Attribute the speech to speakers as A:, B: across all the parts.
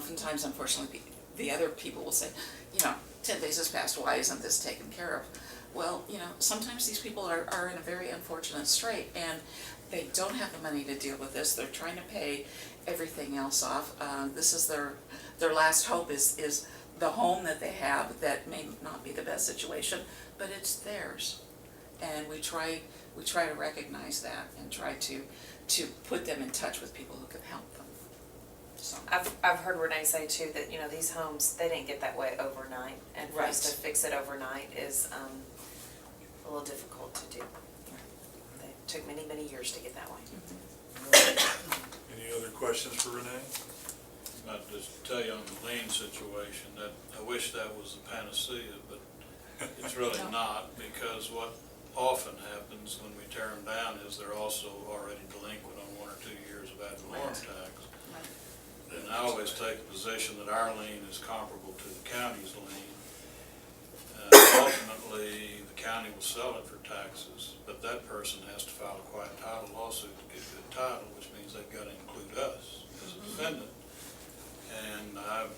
A: oftentimes unfortunately, pe- the other people will say, you know, ten days has passed, why isn't this taken care of? Well, you know, sometimes these people are, are in a very unfortunate strait and they don't have the money to deal with this, they're trying to pay everything else off. Uh, this is their, their last hope is, is the home that they have that may not be the best situation, but it's theirs and we try, we try to recognize that and try to, to put them in touch with people who can help them. So,
B: I've, I've heard Renee say too that, you know, these homes, they didn't get that way overnight. And for us to
A: Right.
B: fix it overnight is um, a little difficult to do. It took many, many years to get that way.
C: Any other questions for Renee?
D: I'd just tell you on the lien situation, that I wish that was the panacea, but it's really
A: No.
D: not, because what often happens when we tear them down is they're also already delinquent on one or two years of ad valorem tax.
A: Right.
D: And I always take the position that our lien is comparable to the county's lien. Uh, Ultimately, the county will sell it for taxes, but that person has to file a quiet title lawsuit to get good title, which means they've got to include us as a defendant. And I've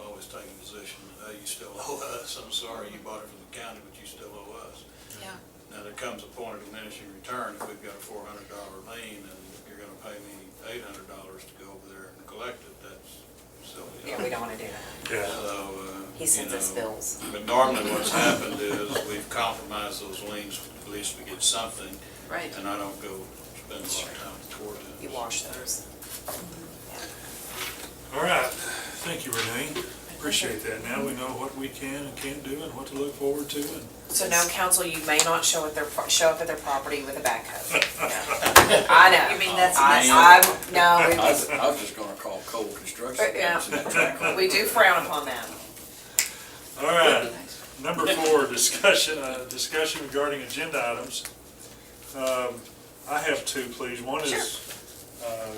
D: always taken the position, hey, you still owe us, I'm sorry, you bought it from the county, but you still owe us.
A: yeah,
D: Now, there comes a point of diminishing return, if we've got a four hundred dollar lien, and you're gonna pay me eight hundred dollars to go over there and collect it, that's silly.
B: Yeah, we don't want to do that.
C: Yeah.
D: So, uh.
B: He sends
D: you
B: us
D: know,
B: bills.
D: But normally what's happened is we've compromised those liens, at least we get something,
A: right.
D: and I don't go spend a lot of time toward it.
B: You wash those.
C: All right, thank you, Renee. Appreciate that. Now we know what we can and can't do and what to look forward to and
B: So now, council, you may not show at their, pro- show up at their property with a backhoe. I know. You mean that's. I, I'm,
E: I
B: no,
E: was, I was just gonna call Cole Construction.
B: Uh, Yeah. we, we do frown upon that.
C: All right, number four, discussion, uh, discussion regarding agenda items. Um, I have two, please. One is, uh,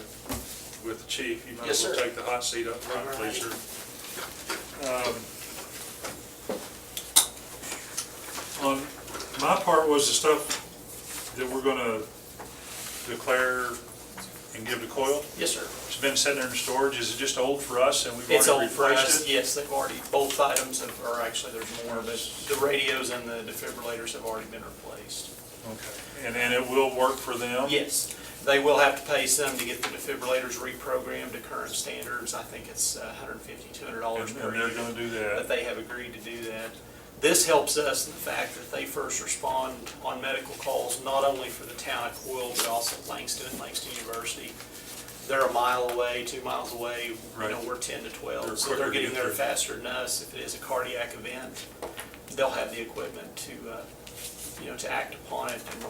C: with the chief, you might as
E: Yes,
C: well
E: sir.
C: take the hot seat up front, please, sir. Um, Um, On, my part was the stuff that we're gonna declare and give to Coyle.
F: Yes, sir.
C: It's been sitting there in storage, is it just old for us and we've
F: It's
C: already
F: old for
C: refreshed
F: us,
C: it?
F: yes, they've already, both items have, or actually, there's more, but the radios and the defibrillators have already been replaced.
C: Okay, and, and it will work for them?
F: Yes, they will have to pay some to get the defibrillators reprogrammed to current standards. I think it's uh, $150,
C: And
F: $200 per
C: and they're
F: unit.
C: gonna do that.
F: But they have agreed to do that. This helps us in the fact that they first respond on medical calls, not only for the town of Coyle, but also Langston and Langston University. They're a mile away, two miles away, you know,
C: Right.
F: we're ten to
C: They're
F: twelve, so
C: quicker
F: they're
C: to
F: getting
C: get
F: there
C: there.
F: faster than us. If it is a cardiac event, they'll have the equipment to, uh, you know, to act upon it and,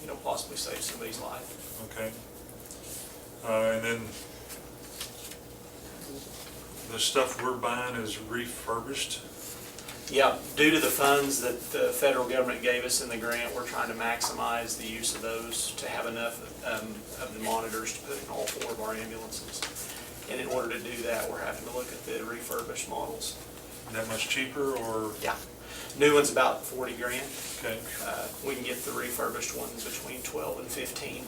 F: you know, possibly save somebody's life.
C: Okay. Uh, and then the stuff we're buying is refurbished.
F: Yeah, due to the funds that the federal government gave us in the grant, we're trying to maximize the use of those to have enough um, of the monitors to put in all four of our ambulances. And in order to do that, we're having to look at the refurbished models.
C: That much cheaper or,
F: Yeah. New one's about forty grand.
C: okay,
F: Uh, We can get the refurbished ones between twelve and fifteen.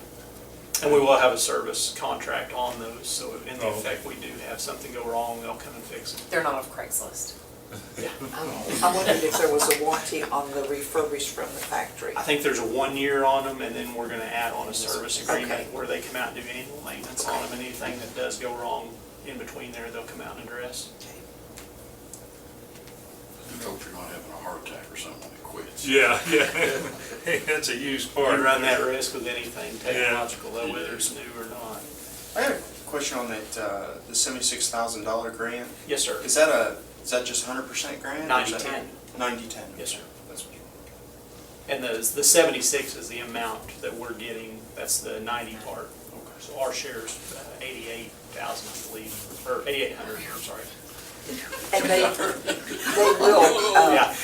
F: And we will have a service contract on those, so in the
C: Oh.
F: effect we do have something go wrong, they'll come and fix it.
B: They're not off Craigslist.
G: I wondered if there was a warranty on the refurbished from the factory.
F: I think there's a one year on them, and then we're gonna add on a service
G: Okay.
F: agreement where they come out and do annual maintenance on them, and anything that does go wrong in between there, they'll come out and address.
E: I hope you're not having a heart attack or something when it quits.
C: yeah, yeah. Hey, that's a used
F: We
C: part.
F: run that risk with anything technological,
E: Yeah.
F: whether it's new or not.
H: I had a question on that, uh, the seventy-six thousand dollar grant.
F: Yes, sir.
H: Is that a, is that just hundred percent grant?
F: 90-10.
H: Ninety-ten?
F: Yes, sir.
H: That's what you
F: And the, the seventy-six is the amount that we're getting, that's the ninety part. So our share's eighty-eight thousand, I believe, or eighty-eight hundred, I'm sorry.
G: And they, they will,
A: Oh.
G: uh,
F: Yeah,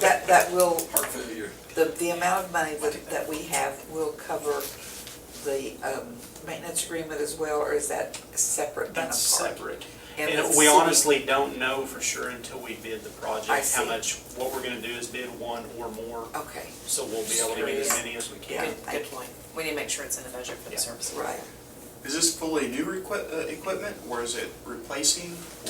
G: that, that will,
E: Heart failure.
G: the, the amount of money that, that we have will cover the um, maintenance agreement as well, or is that separate and apart?
F: that's separate.
G: And
F: And
G: the city-
F: we honestly don't know for sure until we bid the project.
G: I
F: How
G: see.
F: much, what we're gonna do is bid one or more,
G: Okay,
F: so we'll be able to get as many as we
G: Yeah.
F: can.
B: Good, good point. We need to make sure it's in the budget for the
F: Yeah.
B: services.
G: right.
H: Is this fully new requi- uh, equipment, or is it replacing,